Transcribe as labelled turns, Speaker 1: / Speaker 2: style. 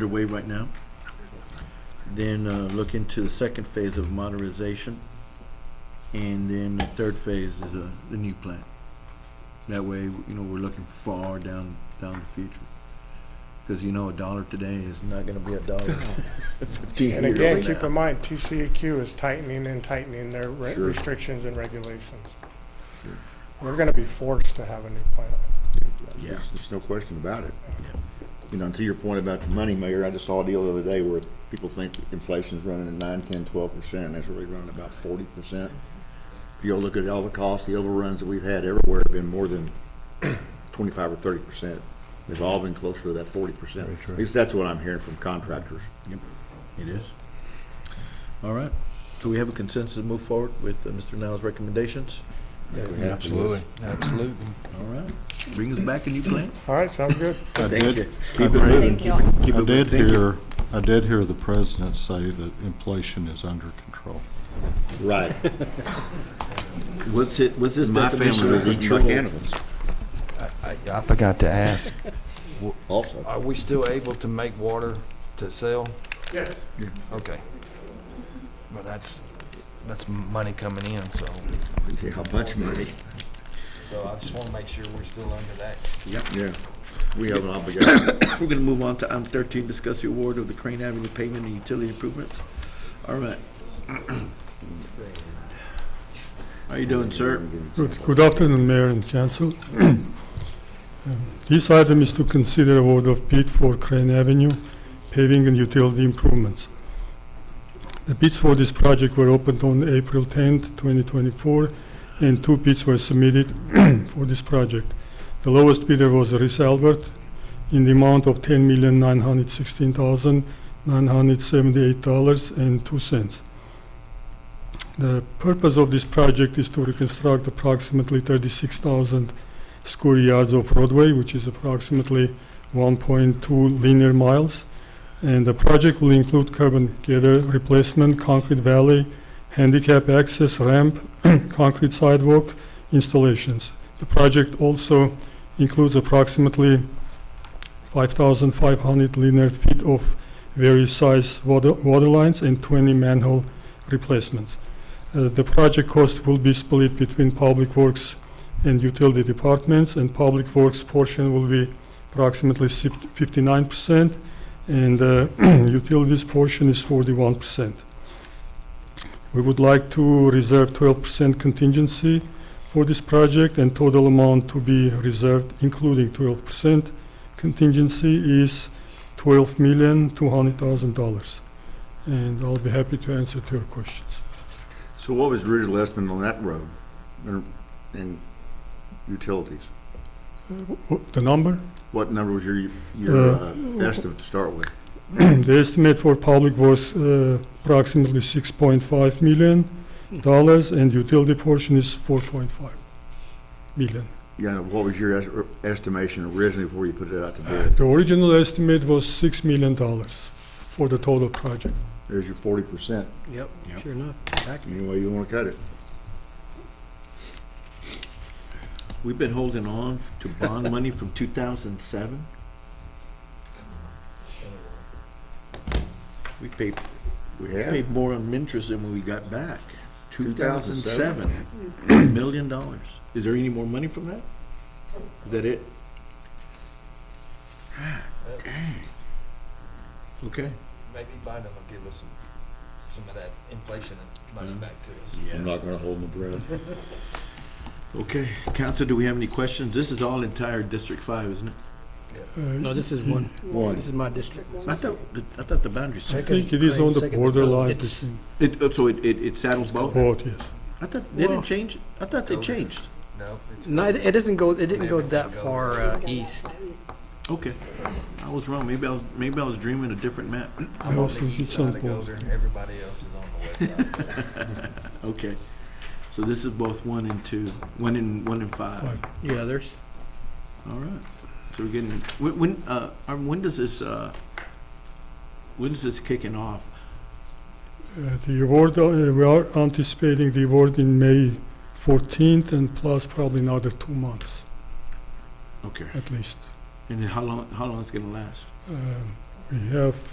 Speaker 1: underway right now. Then uh, look into the second phase of modernization. And then the third phase is uh, the new plan. That way, you know, we're looking far down, down the future. Because you know, a dollar today is not gonna be a dollar fifteen
Speaker 2: And
Speaker 1: years
Speaker 2: again,
Speaker 1: from
Speaker 2: keep
Speaker 1: now.
Speaker 2: in mind, TCEQ is tightening and tightening their re-
Speaker 3: Sure.
Speaker 2: restrictions and regulations.
Speaker 3: Sure.
Speaker 2: We're gonna be forced to have a new plant.
Speaker 1: Yeah.
Speaker 3: There's, there's no question about it.
Speaker 1: Yeah.
Speaker 3: You know, and to your point about the money, Mayor, I just saw a deal the other day where people think inflation's running at nine, ten, twelve percent, and it's really running about forty percent. If you look at all the costs, the overruns that we've had everywhere have been more than twenty-five or thirty percent. They've all been closer to that forty percent. At least that's what I'm hearing from contractors.
Speaker 1: It is. All right, so we have a consensus to move forward with uh, Mr. Niles' recommendations.
Speaker 4: Absolutely, absolutely.
Speaker 1: All right, bring us back a new plan.
Speaker 2: All right, sounds good.
Speaker 5: I
Speaker 1: Thank
Speaker 5: did,
Speaker 1: you.
Speaker 3: Keep it moving,
Speaker 6: Thank you
Speaker 3: keep it, keep it.
Speaker 5: I did
Speaker 3: moving. Thank you.
Speaker 5: hear, I did hear the president say that inflation is under control.
Speaker 3: Right.
Speaker 1: What's it, what's this
Speaker 3: My
Speaker 1: definition
Speaker 3: family
Speaker 1: of
Speaker 3: was eating like
Speaker 1: control?
Speaker 3: animals
Speaker 4: I, I forgot to ask,
Speaker 3: also.
Speaker 4: are we still able to make water to sell?
Speaker 2: Yes.
Speaker 4: Okay. Well, that's, that's money coming in, so,
Speaker 3: Yeah, how much money?
Speaker 4: so I just wanna make sure we're still under that.
Speaker 3: Yeah. We have an obligation.
Speaker 1: We're gonna move on to item thirteen, discuss the award of the Crane Avenue pavement and utility improvements. All right. How you doing, sir?
Speaker 7: Good, good afternoon, Mayor and Council. Um, This item is to consider award of bid for Crane Avenue paving and utility improvements. The bids for this project were opened on April 10th, 2024, and two bids were submitted for this project. The lowest bidder was Riss Albert in the amount of $10,916,978.02. The purpose of this project is to reconstruct approximately 36,000 square yards of roadway, which is approximately 1.2 linear miles. And the project will include curb and gutter replacement, concrete valley, handicap access ramp, concrete sidewalk installations. The project also includes approximately 5,500 linear feet of various size water water lines and 20 manhole replacements. Uh, The project cost will be split between Public Works and Utility Departments, and Public Works portion will be approximately sif- 59%, and uh, Utilities portion is 41%. We would like to reserve 12% contingency for this project, and total amount to be reserved, including 12% contingency, is $12,200,000. And I'll be happy to answer to your questions.
Speaker 3: So what was Richard Lessman on that road and- and utilities?
Speaker 7: Wh- The number,
Speaker 3: What number was your, your
Speaker 7: Uh,
Speaker 3: uh, estimate to start with?
Speaker 7: the estimate for public was uh, approximately six point five million dollars, and utility portion is four point five million.
Speaker 3: Yeah, what was your es- estimation originally before you put it out to bid?
Speaker 7: The original estimate was six million dollars for the total project. Uh,
Speaker 3: There's your forty percent,
Speaker 1: Yep,
Speaker 3: Yep.
Speaker 1: sure enough.
Speaker 3: any way you wanna cut it.
Speaker 1: We've been holding on to bond money from two thousand and seven. We paid,
Speaker 3: We have,
Speaker 1: paid more on interest than we got back. Two thousand and
Speaker 3: 2007.
Speaker 1: seven, million dollars. Is there any more money from that? Is that it? Ah, Dang. Okay.
Speaker 4: Maybe Biden will give us some, some of that inflation
Speaker 1: money back
Speaker 4: to us.
Speaker 3: I'm not gonna hold my breath.
Speaker 1: Okay, council, do we have any questions? This is all entire District Five, isn't it?
Speaker 7: Uh,
Speaker 8: No, this is one,
Speaker 3: One,
Speaker 8: this is my district.
Speaker 1: I thought, the- I thought the boundary
Speaker 7: I
Speaker 1: circle,
Speaker 7: think it is on the
Speaker 8: Second,
Speaker 7: borderline
Speaker 8: it's-
Speaker 7: between
Speaker 1: it, oh, so it, it it saddles both?
Speaker 7: both, yes.
Speaker 1: I thought, they didn't
Speaker 8: Well-
Speaker 1: change, I thought they changed.
Speaker 4: No, it's.
Speaker 8: No, it, it doesn't go, it didn't go that far uh, east.
Speaker 1: Okay, I was wrong, maybe I was, maybe I was dreaming a different map.
Speaker 7: I also did some both.
Speaker 4: Everybody else is on the west side.
Speaker 1: Okay, so this is both one and two, one and, one and five.
Speaker 7: Five.
Speaker 8: Yeah, there's,
Speaker 1: All right, so we're getting, when, when, uh, Arm, when does this, uh, when is this kicking off?
Speaker 7: Uh, The award, uh, we are anticipating the award in May fourteenth and plus probably another two months
Speaker 1: Okay,
Speaker 7: at least.
Speaker 1: and then how long, how long is it gonna last?
Speaker 7: Um, We have